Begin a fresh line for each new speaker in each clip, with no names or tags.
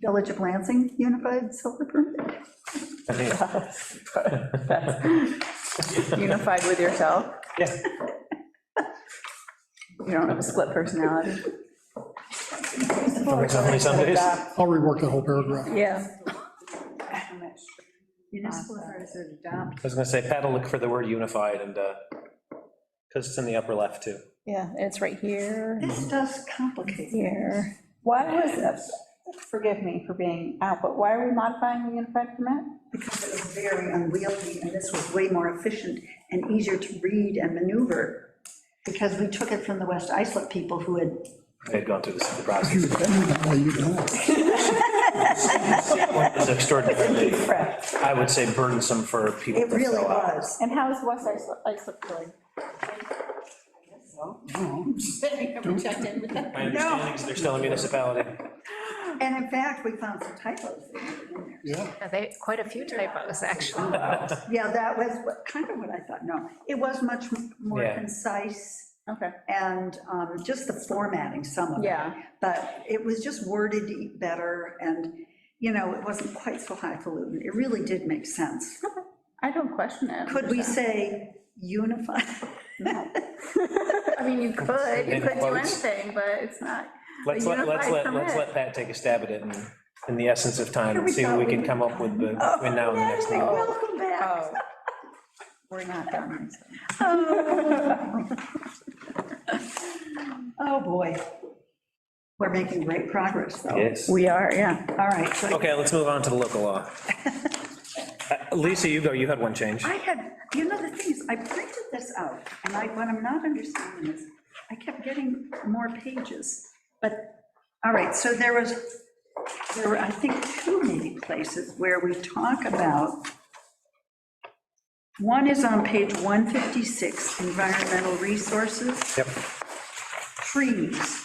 Village of Lansing Unified Solar Permit?
Unified with yourself?
Yeah.
You don't have a split personality?
Works on me some days.
I'll rework the whole paragraph.
Yeah.
Municipal authorities are adopt.
I was gonna say, Pat will look for the word unified and, because it's in the upper left too.
Yeah, and it's right here,
This does complicate.
here. Why was this, forgive me for being out, but why are we modifying the unified permit?
because it was very unwieldy, and this was way more efficient and easier to read and maneuver, because we took it from the West Islip people who had,
They had gone through this the
You
process.
would think that way, you'd know.
It was extraordinarily, I would say burdensome for people
it
to
really
fill out.
was.
And how is West Islip, Islip doing?
Oh,
My understanding is they're still a municipality.
And in fact, we found some typos. in there.
Yeah,
Yeah, They, quite a few typos, actually.
Yeah, that was what- kind of what I thought, no, it was much more
Yeah.
concise,
Okay,
and um, just the formatting, some of it.
Yeah.
But it was just worded better, and, you know, it wasn't quite so highfalutin, it really did make sense.
I don't question it.
Could we say unified?
I mean, you could, you
In
could do
quotes.
anything, but it's not. a
Let's let, let's
unified
let, let's
permit.
let Pat take a stab at it and, in the essence of time, and
We Oh,
see what
thought
we
we
can
were
come up with the- between now and the next
Natalie,
meeting.
Welcome back.
Oh, We're not done.
Oh, boy. We're making great progress, though.
Yes.
We are, yeah.
All right, so
Okay, let's move on to the local law. Uh, Lisa, you go, you had one change.
I had, you know, the thing is, I printed this out, and I, what I'm not understanding is, I kept getting more pages, but, all right, so there was, there were, I think, two maybe places where we talk about, one is on page 156, environmental resources.
Yep,
trees.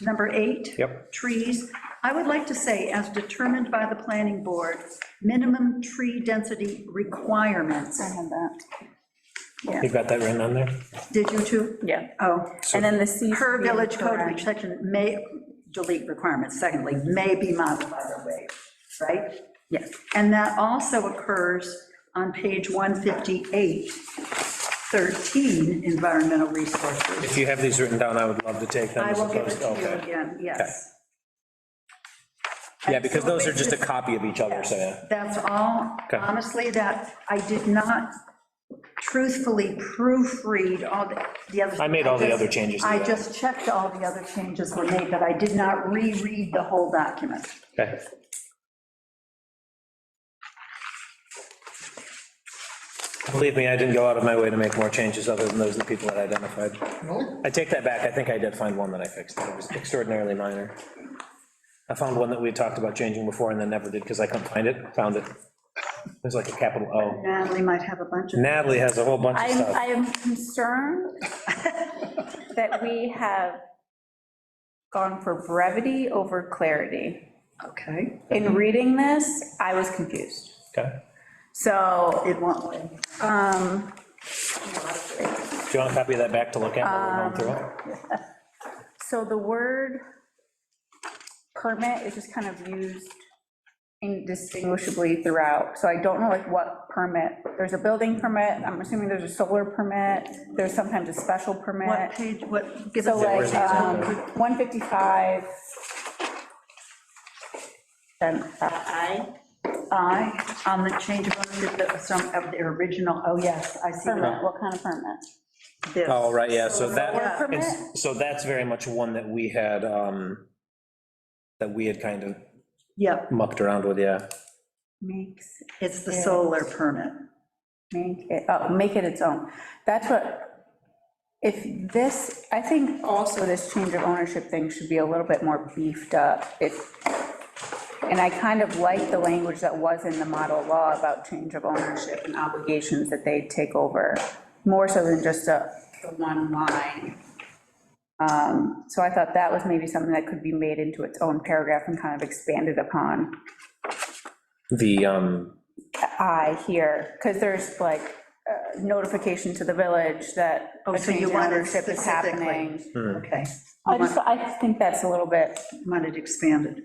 Number eight.
Yep.
Trees. I would like to say, as determined by the planning board, minimum tree density requirements.
I have that.
you got that written on there?
Did you too?
Yeah.
Oh.
And then the C.
Per village code, which section may, delete requirements, secondly, may be modified or waived, right? Yes. And that also occurs on page 158, 13, environmental resources.
If you have these written down, I would love to take them.
I
as
will give it
opposed-
to you
okay.
again, yes.
Yeah, because those are just a copy of each other, so, yeah.
That's all,
Okay.
honestly, that, I did not truthfully proofread all the, the other.
I made all the other changes.
I just checked all the other changes were made, but I did not reread the whole document.
Okay. Believe me, I didn't go out of my way to make more changes other than those that people had identified.
Really?
I take that back, I think I did find one that I fixed, it was extraordinarily minor. I found one that we talked about changing before and then never did, because I couldn't find it, found it. There's like a capital O.
Natalie might have a bunch of.
Natalie has a whole bunch of
I'm,
stuff.
I am concerned that we have gone for brevity over clarity.
Okay.
In reading this, I was confused.
Okay.
So,
It won't wait.
um,
Do you want a copy of that back to look at while
Um,
we're going through it?
so the word permit is just kind of used indistinguishably throughout. So I don't know like what permit, there's a building permit, I'm assuming there's a solar permit, there's sometimes a special permit.
What page, what, give
So
us.
like, um, 155. Then, uh,
I. I, on the change of ownership, that was some of the original, oh, yes, I see
Permit,
that.
what kind of permit?
This.
Oh, right, yeah, so
Solar
that,
permit?
it's- so that's very much one that we had, um, that we had kind of
Yep,
mucked around with, yeah.
Makes,
it's the solar permit.
make it, oh, make it its own. That's what, if this, I think also this change of ownership thing should be a little bit more beefed up. If, and I kind of like the language that was in the model law about change of ownership and obligations that they take over, more so than just a the one line. Um, So I thought that was maybe something that could be made into its own paragraph and kind of expanded upon.
The, um,
I here, because there's like uh, notification to the village that
Oh,
a
so
change
you
in
want it
ownership is happening.
specifically? Okay.
I just, I think that's a little bit.
Want it expanded.